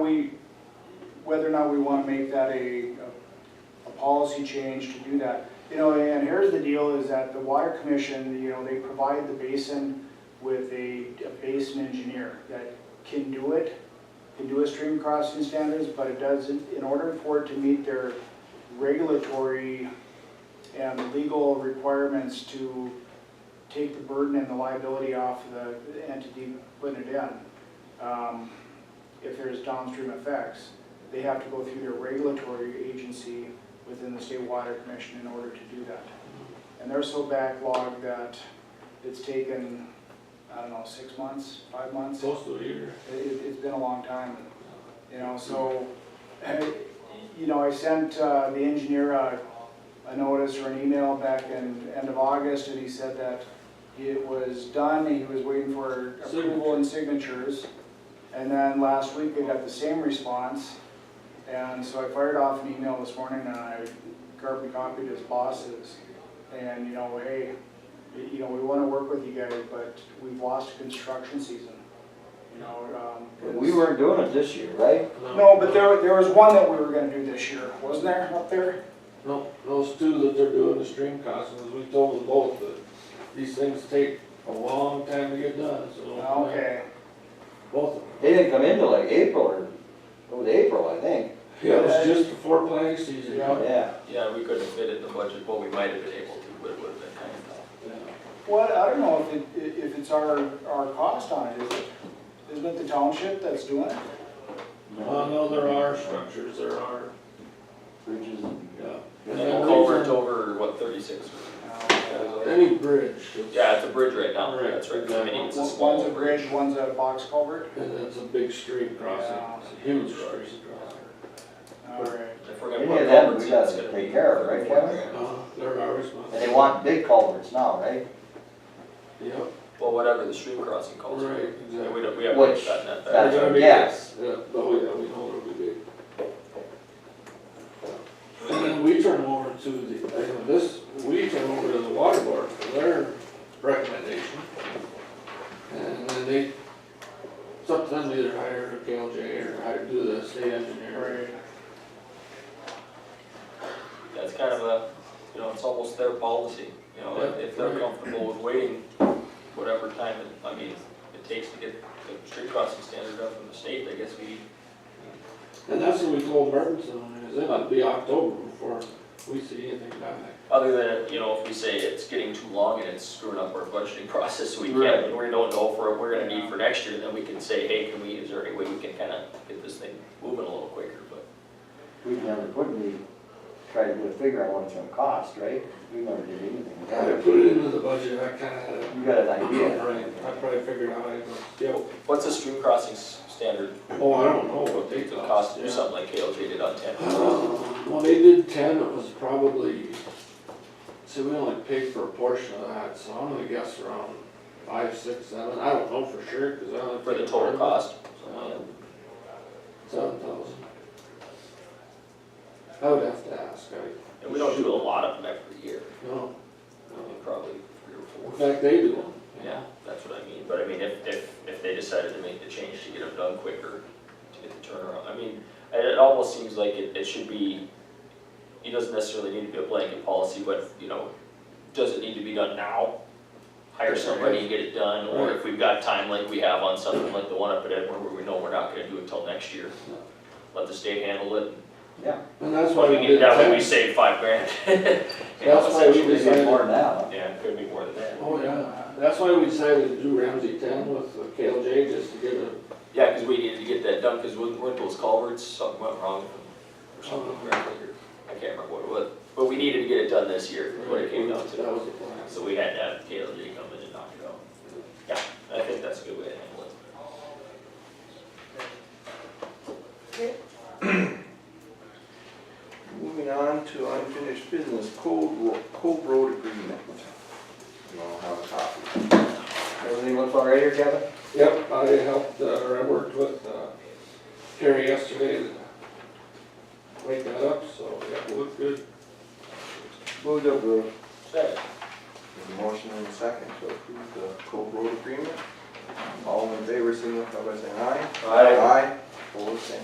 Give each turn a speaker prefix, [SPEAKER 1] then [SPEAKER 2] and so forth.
[SPEAKER 1] we, whether or not we want to make that a, a policy change to do that. You know, and here's the deal, is that the water commission, you know, they provide the basin with a a basin engineer that can do it, can do a stream crossing standards, but it doesn't, in order for it to meet their regulatory and legal requirements to take the burden and the liability off the entity putting it in, um, if there's downstream effects, they have to go through their regulatory agency within the state water commission in order to do that. And they're so backlogged that it's taken, I don't know, six months, five months?
[SPEAKER 2] Close to a year.
[SPEAKER 1] It, it- it's been a long time, you know, so, you know, I sent uh, the engineer a, a notice or an email back in, end of August, and he said that it was done, he was waiting for approval and signatures. And then last week, I got the same response, and so I fired off an email this morning, and I carbon copied his bosses. And, you know, hey, you know, we wanna work with you guys, but we've lost construction season, you know, um.
[SPEAKER 3] We weren't doing it this year, right?
[SPEAKER 1] No, but there, there was one that we were gonna do this year, wasn't there, up there?
[SPEAKER 2] No, those two that they're doing the stream crossings, we told them both that these things take a long time to get done, so.
[SPEAKER 1] Ah, Okay,
[SPEAKER 2] Both of them.
[SPEAKER 3] They didn't come into like April or, it was April, I think.
[SPEAKER 2] Yeah, it was just before planning season.
[SPEAKER 1] Yeah.
[SPEAKER 3] Yeah.
[SPEAKER 4] Yeah, we couldn't fit it in the budget, well, we might have been able to, but it would have been kind of.
[SPEAKER 1] well, I don't know if it, if it's our, our cost on it, is it? Isn't it the township that's doing it?
[SPEAKER 2] Well, Uh, no, there are structures, there are,
[SPEAKER 3] Bridges and.
[SPEAKER 2] yeah.
[SPEAKER 4] And
[SPEAKER 2] And
[SPEAKER 4] then
[SPEAKER 2] the
[SPEAKER 4] culvert's
[SPEAKER 2] reason-
[SPEAKER 4] over, what, thirty-six?
[SPEAKER 2] Any bridge. it's-
[SPEAKER 4] Yeah, it's a bridge right now,
[SPEAKER 2] Right,
[SPEAKER 4] that's right, I mean, it's a
[SPEAKER 1] One's
[SPEAKER 4] small
[SPEAKER 1] a
[SPEAKER 4] bridge.
[SPEAKER 1] bridge, one's a box culvert,
[SPEAKER 2] And it's a big stream crossing, it's a huge stream crossing.
[SPEAKER 1] all right.
[SPEAKER 4] If we're gonna
[SPEAKER 3] Any
[SPEAKER 4] put
[SPEAKER 3] of them,
[SPEAKER 4] culverts
[SPEAKER 3] we
[SPEAKER 4] in, it's
[SPEAKER 3] gotta
[SPEAKER 4] gonna
[SPEAKER 3] take
[SPEAKER 4] be-
[SPEAKER 3] care of, right, Kevin?
[SPEAKER 2] Uh, they're our
[SPEAKER 3] And
[SPEAKER 2] responsibility.
[SPEAKER 3] they want big culverts now, right?
[SPEAKER 2] Yep,
[SPEAKER 4] Well, whatever the stream crossing calls for.
[SPEAKER 2] right,
[SPEAKER 4] Yeah, We
[SPEAKER 2] exactly.
[SPEAKER 4] don't, we haven't
[SPEAKER 3] Which-
[SPEAKER 4] gotten that back.
[SPEAKER 3] That's,
[SPEAKER 2] gotta be-
[SPEAKER 3] yes.
[SPEAKER 2] Yeah, oh yeah, we know it'll be big. And then we turn them over to the, I know this, we turn them over to the water board for their recommendation. And then they, sometimes either hire a KLJ or hire, do the state engineer.
[SPEAKER 4] That's kind of a, you know, it's almost their policy, you know, if- if they're
[SPEAKER 2] Yeah.
[SPEAKER 4] comfortable with waiting whatever time, it- I mean, it takes to get the street crossing standard up from the state, I guess we,
[SPEAKER 2] And that's what we told Mertensen, is it might be October before we see anything done.
[SPEAKER 4] other than, you know, if we say it's getting too long and it's screwing up our budgeting process, we
[SPEAKER 2] Right.
[SPEAKER 4] can't, and we don't know for, we're gonna need for next year, then we can say, hey, can we, is there any way we can kinda get this thing moving a little quicker, but
[SPEAKER 3] We've never put any, tried to do a figure on what it's gonna cost, right? We never did anything. with
[SPEAKER 2] I
[SPEAKER 3] that.
[SPEAKER 2] put it into the budget, I kinda had a
[SPEAKER 3] You got an idea?
[SPEAKER 2] Right, I probably figured out, I was, yo,
[SPEAKER 4] what's the stream crossing s- standard
[SPEAKER 2] oh, I don't know what they cost.
[SPEAKER 4] cost to do
[SPEAKER 2] yeah.
[SPEAKER 4] something like KLJ did on ten?
[SPEAKER 2] Well, they did ten, it was probably, see, we only paid for a portion of that, so I'm gonna guess around five, six, seven, I don't know for sure, cause I only.
[SPEAKER 4] For the
[SPEAKER 2] paid part
[SPEAKER 4] total cost,
[SPEAKER 2] of it. Seven thousand. I would have to ask, I,
[SPEAKER 4] and we don't do a lot of them every year,
[SPEAKER 2] no,
[SPEAKER 4] I mean,
[SPEAKER 2] no.
[SPEAKER 4] probably three or
[SPEAKER 2] in
[SPEAKER 4] four.
[SPEAKER 2] fact, they do them.
[SPEAKER 4] Yeah, that's what I mean, but I mean, if, if, if they decided to make the change to get them done quicker, to get the turnaround, I mean, it, it almost seems like it, it should be, it doesn't necessarily need to be a blanket policy, but, you know, does it need to be done now? Hire somebody and get it done, or if we've got time like we have on something like the one up at Edward where we know we're not gonna do it till next year, let the state handle it,
[SPEAKER 3] Yeah.
[SPEAKER 2] And that's why we
[SPEAKER 4] Well,
[SPEAKER 2] did
[SPEAKER 4] that way we
[SPEAKER 2] ten.
[SPEAKER 4] save five grand.
[SPEAKER 2] That's why we
[SPEAKER 3] It's
[SPEAKER 2] decided,
[SPEAKER 3] more now.
[SPEAKER 4] Yeah, it could be more than that.
[SPEAKER 2] oh, yeah, that's why we decided to do Ramsey ten with the KLJ, just to get a
[SPEAKER 4] Yeah, because we needed to get that done, because weren't those culverts, something went wrong or something,
[SPEAKER 2] Oh.
[SPEAKER 4] or- I can't remember what it was. But we needed to get it done this year, is what it came down
[SPEAKER 2] That
[SPEAKER 4] to.
[SPEAKER 2] was the plan.
[SPEAKER 4] So we had to have KLJ come in and knock it out. Yeah, I think that's a good way to handle it.
[SPEAKER 5] Moving on to unfinished business, Cove Ro- Cove Road Agreement. You all have a copy.
[SPEAKER 3] Everything looks all right here, Kevin?
[SPEAKER 2] Yep, I helped, uh, or I worked with, uh, Terry yesterday to wake that up, so, yeah, it looked good.
[SPEAKER 5] Move to approve.
[SPEAKER 4] Second.
[SPEAKER 5] There's a motion and a second to approve the Cove Road Agreement. All in favor, signify by saying aye.
[SPEAKER 4] Aye.
[SPEAKER 5] Aye, opposed, same